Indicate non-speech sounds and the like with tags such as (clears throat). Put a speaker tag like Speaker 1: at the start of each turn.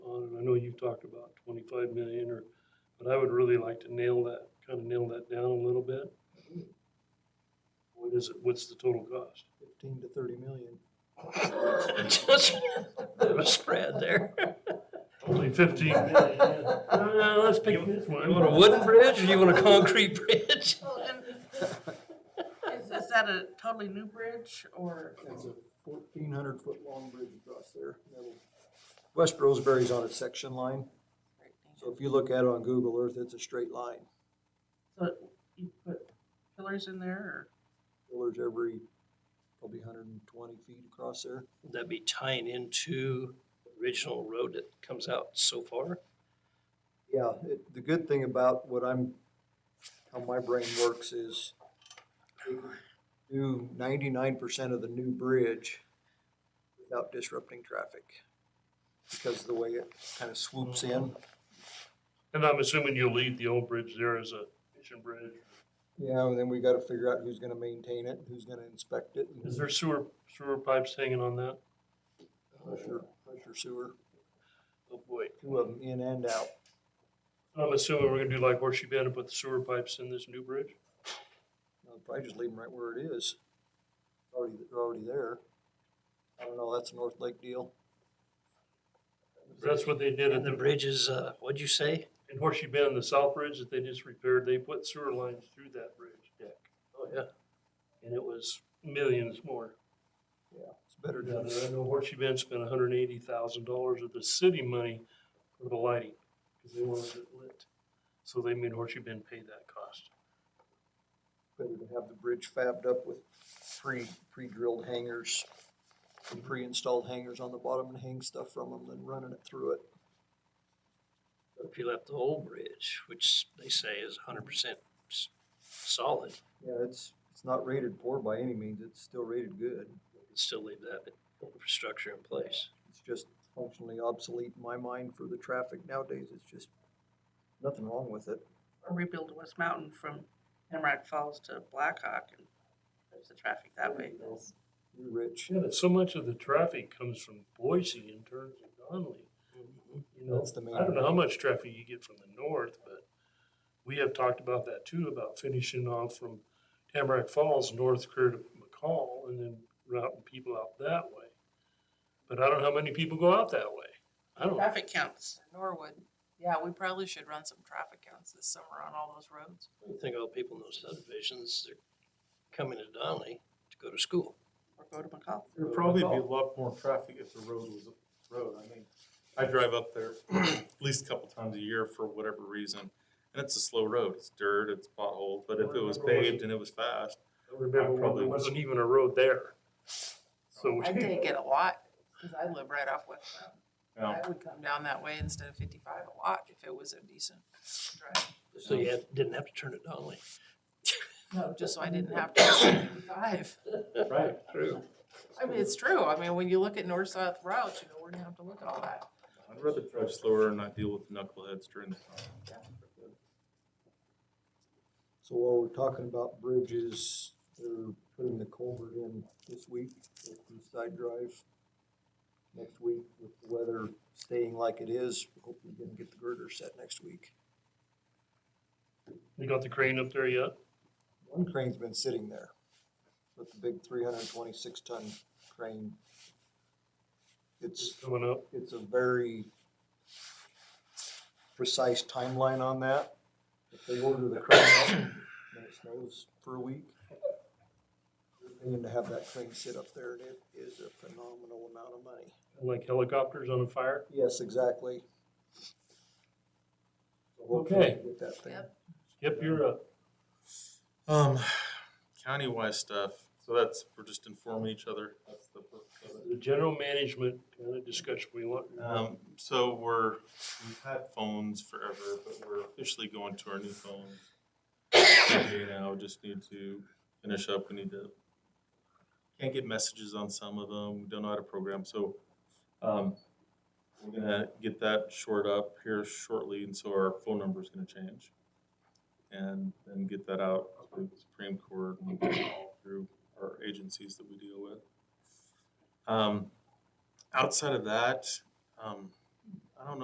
Speaker 1: you've talked about twenty-five million or, but I would really like to nail that, kind of nail that down a little bit. What is it, what's the total cost?
Speaker 2: fifteen to thirty million.
Speaker 3: (laughs) Just a bit of a spread there.
Speaker 1: Only fifteen million. yeah. No, no, Uh, let's pick this one.
Speaker 3: You want a wooden bridge or you want a concrete bridge?
Speaker 4: Well, and Is, is that a totally new bridge or?
Speaker 2: That's a fourteen hundred foot long bridge across there. That'll- West Roseberry's on a section line, so if you look at it on Google Earth, it's a straight line.
Speaker 4: So you put pillars in there
Speaker 2: Pillars every, probably hundred and twenty feet across there.
Speaker 3: That'd be tying into the original road that comes out so far.
Speaker 2: Yeah, it, the good thing about what I'm, how my brain works is we do ninety-nine percent of the new bridge without disrupting traffic because of the way it kind of swoops in.
Speaker 1: And I'm assuming you'll leave the old bridge there as a mission bridge.
Speaker 2: Yeah, and then we gotta figure out who's gonna maintain it, who's gonna inspect it. and
Speaker 1: Is there sewer, sewer pipes hanging on that?
Speaker 2: Pressure, pressure sewer,
Speaker 1: Oh, boy.
Speaker 2: two of them in and out.
Speaker 1: I'm assuming we're gonna do like Horseshoe Bend and put the sewer pipes in this new bridge?
Speaker 2: I'll probably just leave them right where it is. Already, they're already there. I don't know, that's a North Lake deal.
Speaker 1: That's what they did at
Speaker 3: And the
Speaker 1: the
Speaker 3: bridge is, uh, what'd you say?
Speaker 1: in Horseshoe Bend, the south bridge that they just repaired, they put sewer lines through that bridge deck.
Speaker 3: Oh, yeah.
Speaker 1: And it was millions more.
Speaker 2: Yeah, it's better
Speaker 1: Now,
Speaker 2: down there.
Speaker 1: I know Horseshoe Bend spent hundred and eighty thousand dollars of the city money for the lighting, because they wanted it lit. So they made Horseshoe Bend pay that cost.
Speaker 2: better to have the bridge fabbed up with pre, pre-drilled hangers and pre-installed hangers on the bottom and hang stuff from them than running it through it.
Speaker 3: If you left the old bridge, which they say is hundred percent solid,
Speaker 2: Yeah, it's, it's not rated poor by any means, it's still rated good.
Speaker 3: you could still leave that infrastructure in place.
Speaker 2: It's just functionally obsolete in my mind for the traffic nowadays, it's just nothing wrong with it.
Speaker 4: or rebuild West Mountain from Hemrock Falls to Blackhawk and there's the traffic that way?
Speaker 2: You're rich,
Speaker 1: Yeah, but so much of the traffic comes from Boise and turns to Donley. You know,
Speaker 2: That's the main-
Speaker 1: I don't know how much traffic you get from the north, but we have talked about that too, about finishing off from Tamarack Falls, North Career to McCall, and then routing people out that way. But I don't know how many people go out that way. I don't,
Speaker 4: Traffic counts.
Speaker 5: Norwood. Yeah, we probably should run some traffic counts this summer on all those roads.
Speaker 3: I think all people in those subdivisions, they're coming to Donley to go to school.
Speaker 4: Or go to McCall.
Speaker 6: There'd probably be a lot more traffic if the road was a road. I mean, I drive up there (clears throat) at least a couple times a year for whatever reason. And it's a slow road. It's dirt, it's pothole, but if it was paved and it was fast,
Speaker 1: I remember when
Speaker 6: Probably
Speaker 1: there wasn't even a road there. So,
Speaker 5: I take it a lot, cause I live right off West Mountain.
Speaker 6: you know,
Speaker 5: I would come down that way instead of fifty-five a lot if it was a decent drive.
Speaker 3: So you had- didn't have to turn to Donley.
Speaker 5: No, just so I didn't have to go fifty-five.
Speaker 6: right.
Speaker 3: True.
Speaker 5: I mean, it's true. I mean, when you look at north-south routes, you know, we're gonna have to look at all that.
Speaker 6: I'd rather drive slower and not deal with the knuckleheads during the time.
Speaker 2: so while we're talking about bridges, they're putting the culvert in this week, at East Side Drive. Next week, with the weather staying like it is, hopefully gonna get the girder set next week.
Speaker 1: (laughs) we got the crane up there yet?
Speaker 2: One crane's been sitting there with the big three hundred and twenty-six ton crane.
Speaker 1: It's
Speaker 2: It's,
Speaker 1: coming up.
Speaker 2: it's a very precise timeline on that. If they order the crane up, then it snows for a week. And to have that crane sit up there, it is a phenomenal amount of money.
Speaker 1: Like helicopters on a fire.
Speaker 2: Yes, exactly. So hopefully we
Speaker 1: Okay.
Speaker 2: can Get that thing.
Speaker 5: Yep.
Speaker 1: Yep, you're up.
Speaker 6: (sighs) Um, county-wise stuff, so that's, we're just informing each other. That's the purpose of it.
Speaker 1: The general management kind of discussion we want.
Speaker 6: Um, so we're, we've had phones forever, but we're officially going to our new phones. Okay, Now, just need to finish up, we need to, can't get messages on some of them, we don't know how to program, so, um, we're gonna get that short up here shortly, and so our phone number's gonna change. And then get that out to the Supreme Court and all through our agencies that we deal with. Um, outside of that, um,